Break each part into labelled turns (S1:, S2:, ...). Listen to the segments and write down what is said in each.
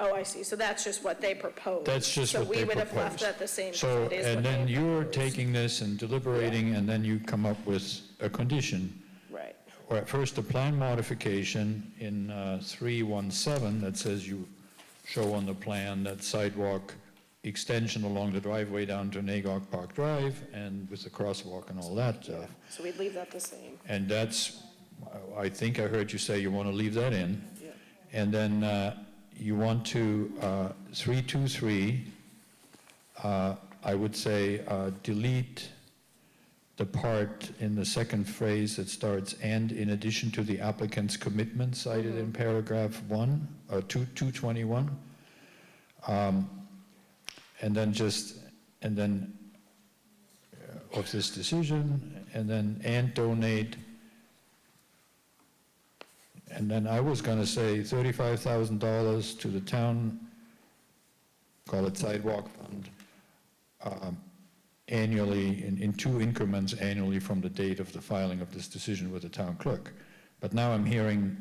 S1: Oh, I see, so that's just what they proposed.
S2: That's just what they
S1: So we would have left
S2: proposed.
S1: that the same.
S2: So,
S1: as what
S2: and then
S1: they
S2: you're
S1: proposed.
S2: taking this and deliberating, and then you come up with a condition.
S1: Right,
S2: Or at first, a plan modification in uh, 317 that says you show on the plan that sidewalk extension along the driveway down to Nagog Park Drive and with the crosswalk and all that
S1: yeah,
S2: stuff.
S1: so we'd leave that the same,
S2: And that's, I think I heard you say you want to leave that in.
S1: yeah.
S2: And then uh, you want to, uh, 323, uh, I would say uh, delete the part in the second phrase that starts, "and in addition to the applicant's commitment cited in paragraph uh, 1, or 2 221." Um, And then just, and then uh, of this decision, and then, "and donate and then I was gonna say thirty-five thousand dollars to the town, call it sidewalk fund, um, annually, in, in two increments annually from the date of the filing of this decision with the town clerk. But now I'm hearing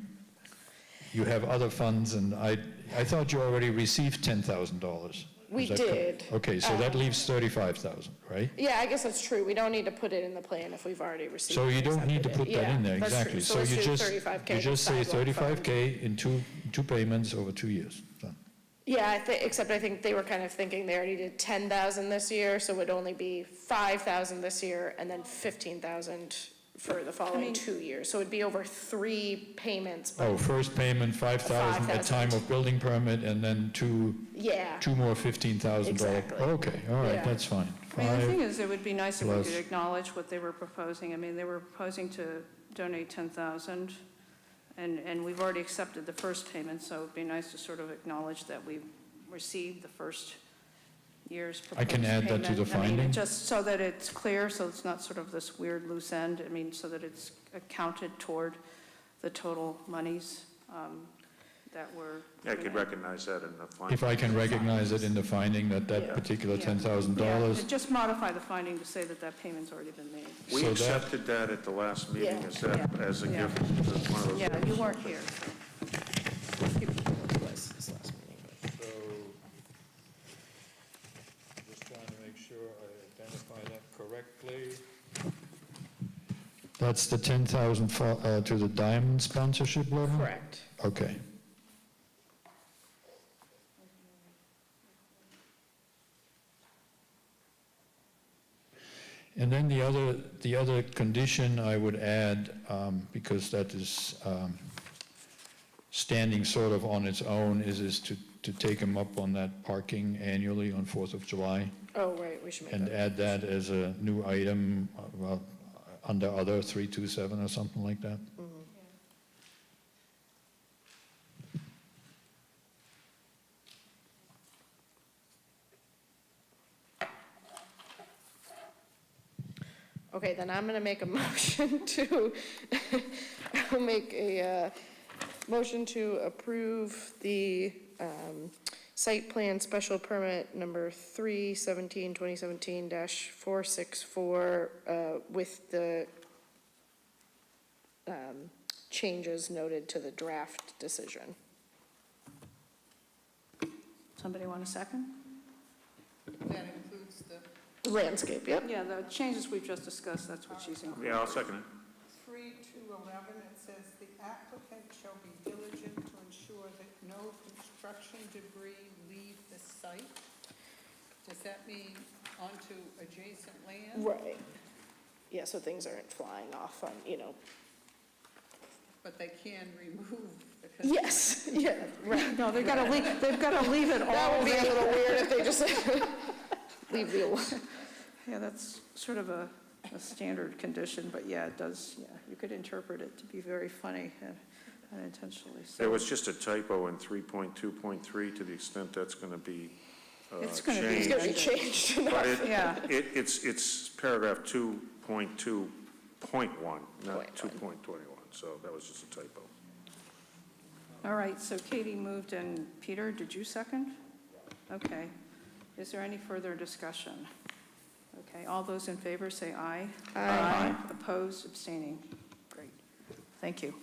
S2: you have other funds, and I, I thought you already received ten thousand dollars.
S1: We did. Um,
S2: Okay, so that leaves thirty-five thousand, right?
S1: Yeah, I guess that's true, we don't need to put it in the plan if we've already received.
S2: So you
S1: and
S2: don't need to put
S1: accepted it.
S2: that in there,
S1: Yeah, that's true.
S2: exactly.
S1: So let's
S2: you
S1: do
S2: just
S1: 35K
S2: You just say
S1: sidewalk fund.
S2: thirty-five K in two, two payments over two years. Done.
S1: Yeah, I thi- except I think they were kind of thinking they already did ten thousand this year, so it would only be five thousand this year and then fifteen thousand for the following two years. So it'd be over three payments, but
S2: Oh, first payment, five thousand at time of building permit, and then two,
S1: yeah,
S2: two more fifteen thousand dollar.
S1: Exactly.
S2: Okay, all right,
S1: Yeah.
S2: that's fine.
S3: I mean, the
S2: Five-
S3: thing is, it would be nice if we
S2: plus-
S3: could acknowledge what they were proposing. I mean, they were proposing to donate 10,000, and, and we've already accepted the first payment, so it'd be nice to sort of acknowledge that we received the first year's
S2: I
S3: proposed
S2: can
S3: payment.
S2: add that to the
S3: I mean,
S2: finding.
S3: Just so that it's clear, so it's not sort of this weird loose end, I mean, so that it's accounted toward the total monies um, that were.
S4: I could recognize that in the final.
S2: If I can recognize it in the finding that that
S1: Yeah.
S2: particular ten thousand
S3: Yeah,
S2: dollars,
S3: Just modify the finding to say that that payment's already been made.
S4: We
S2: So that-
S4: accepted that at the last meeting,
S1: Yeah.
S4: as that,
S3: Yeah.
S4: as a
S3: Yeah.
S4: gift, as one of those.
S3: Yeah, you weren't here.
S2: So, just trying to make sure I identify that correctly. That's the ten thousand for, uh, to the Diamond sponsorship level?
S1: correct.
S2: Okay. And then the other, the other condition I would add, um, because that is um, standing sort of on its own, is, is to, to take them up on that parking annually on Fourth of July
S1: Oh, right, we should make
S2: and
S1: that.
S2: add that as a new item, uh, well, under other 327 or something like that.
S1: Okay, then I'm gonna make a motion to, I'll make a, uh, motion to approve the, um, site plan special permit number three seventeen twenty seventeen dash four six four, uh, with the, um, changes noted to the draft decision.
S3: Somebody want a second?
S5: That includes the
S1: Landscape, yep.
S3: Yeah, the changes we've just discussed, that's what she's including.
S4: Yeah, I'll second it.
S5: three to eleven, it says the applicant shall be diligent to ensure that no construction debris leave the site. Does that mean onto adjacent land?
S1: Right. Yeah, so things aren't flying off on, you know,
S5: But they can remove because.
S1: yes, yeah, right.
S3: No, they've got to leave, they've got to leave it
S1: That
S3: all
S1: would be a
S3: there.
S1: little weird if they just leave the,
S3: Yeah, that's sort of a, a standard condition, but yeah, it does, yeah, you could interpret it to be very funny uh, unintentionally, so.
S4: There was just a typo in 3.2.3, to the extent that's going to be uh,
S3: It's gonna be-
S1: it's
S4: changed.
S1: gonna be changed.
S4: But it,
S3: Yeah.
S4: it, it's, it's paragraph 2.2.1, not
S1: Point
S4: 2.21, so that was just a typo.
S3: All right, so Katie moved, and Peter, did you second? Okay. Is there any further discussion? Okay, all those in favor say aye. Aye. Opposed, abstaining? Great. Thank you.